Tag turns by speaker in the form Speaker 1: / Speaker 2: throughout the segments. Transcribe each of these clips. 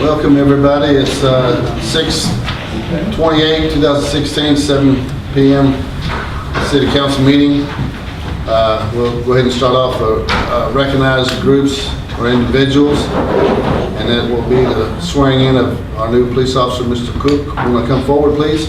Speaker 1: Welcome, everybody. It's uh, 6:28, 2016, 7 PM, City Council meeting. Uh, We'll go ahead and start off, uh, uh, recognize groups or individuals, and that will be the swearing in of our new police officer, Mr. Cook. You want to come forward, please?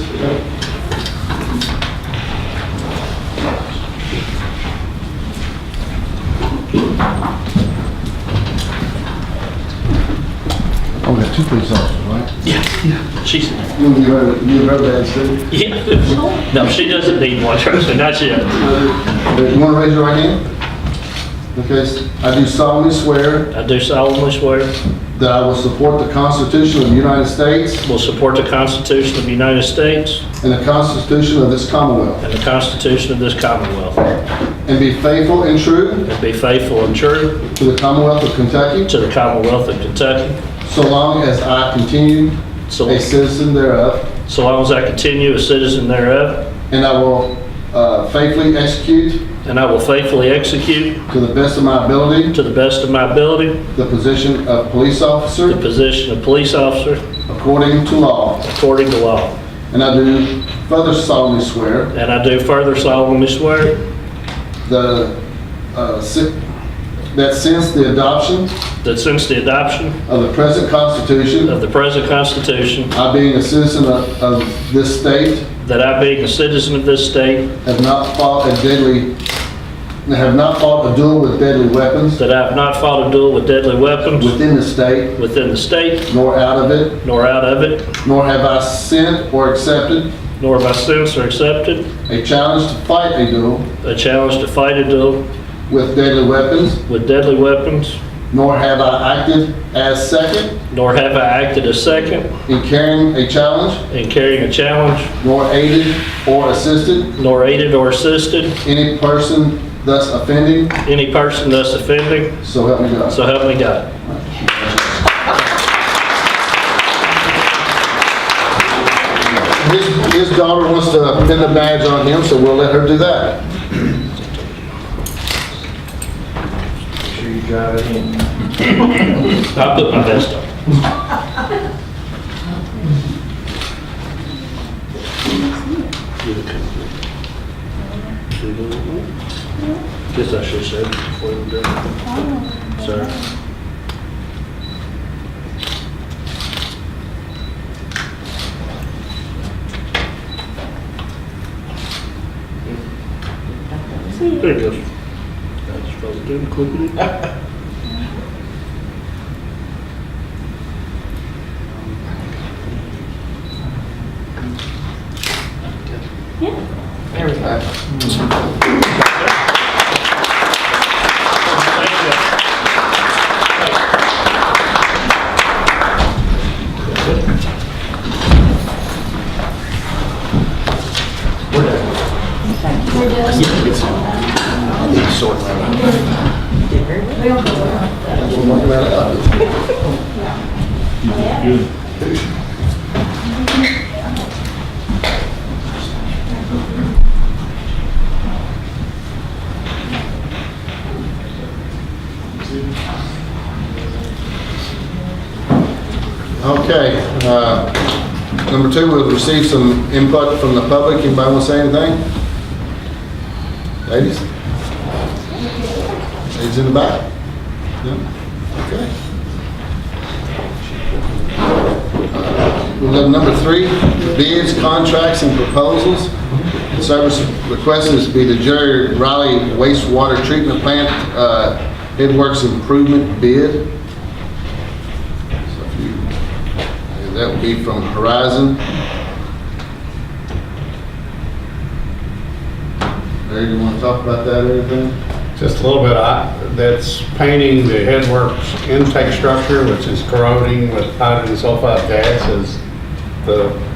Speaker 1: Oh, we got two police officers, right?
Speaker 2: She's,
Speaker 1: You've heard, you've heard that, sir.
Speaker 2: yeah. No, she doesn't need one, trust me, not yet.
Speaker 1: You want to raise your right hand? Okay, s- I do solemnly swear
Speaker 2: I do solemnly swear,
Speaker 1: that I will support the Constitution of the United States
Speaker 2: will support the Constitution of the United States
Speaker 1: and the Constitution of this Commonwealth,
Speaker 2: and the Constitution of this Commonwealth,
Speaker 1: and be faithful and true
Speaker 2: and be faithful and true
Speaker 1: to the Commonwealth of Kentucky
Speaker 2: to the Commonwealth of Kentucky,
Speaker 1: so long as I continue
Speaker 2: so
Speaker 1: a citizen thereof,
Speaker 2: so long as I continue a citizen thereof,
Speaker 1: and I will uh, faithfully execute
Speaker 2: and I will faithfully execute,
Speaker 1: to the best of my ability,
Speaker 2: to the best of my ability,
Speaker 1: the position of police
Speaker 2: the
Speaker 1: officer
Speaker 2: position of police officer
Speaker 1: according to law.
Speaker 2: according to law.
Speaker 1: And I do further solemnly swear
Speaker 2: And I do further solemnly swear
Speaker 1: the, uh, si- that since the adoption
Speaker 2: that since the adoption
Speaker 1: of the present Constitution,
Speaker 2: of the present Constitution,
Speaker 1: I being a citizen of of this state,
Speaker 2: that I being a citizen of this state,
Speaker 1: have not fought a deadly, have not fought a duel with deadly weapons
Speaker 2: That I have not fought a duel with deadly weapons
Speaker 1: within the state,
Speaker 2: within the state,
Speaker 1: nor out of it,
Speaker 2: nor out of it,
Speaker 1: nor have I sent or accepted
Speaker 2: nor have I since or accepted
Speaker 1: a challenge to fight a duel
Speaker 2: a challenge to fight a duel
Speaker 1: with deadly weapons,
Speaker 2: with deadly weapons,
Speaker 1: nor have I acted as second
Speaker 2: nor have I acted as second
Speaker 1: in carrying a challenge,
Speaker 2: in carrying a challenge,
Speaker 1: nor aided or assisted
Speaker 2: nor aided or assisted
Speaker 1: any person thus offending,
Speaker 2: any person thus offending,
Speaker 1: so help me God.
Speaker 2: so help me God.
Speaker 1: His, his daughter wants to pin the badge on him, so we'll let her do that.
Speaker 2: I put my best on. Guess I should say before we do. Sorry. There it goes. That's supposed to do, click it. Thank
Speaker 1: Okay, uh, number two, we'll receive some input from the public. Anybody want to say anything? Ladies? Ladies in the back? No? Okay. Uh, We'll have number three, bids, contracts, and proposals. The Service request is to be the Jerry Riley wastewater treatment plant, uh, headworks improvement bid. So if you and That would be from Horizon. Larry, you want to talk about that or anything?
Speaker 3: Just a little bit, I- that's painting the headworks intake structure, which is corroding with hydrogen sulfide gas as the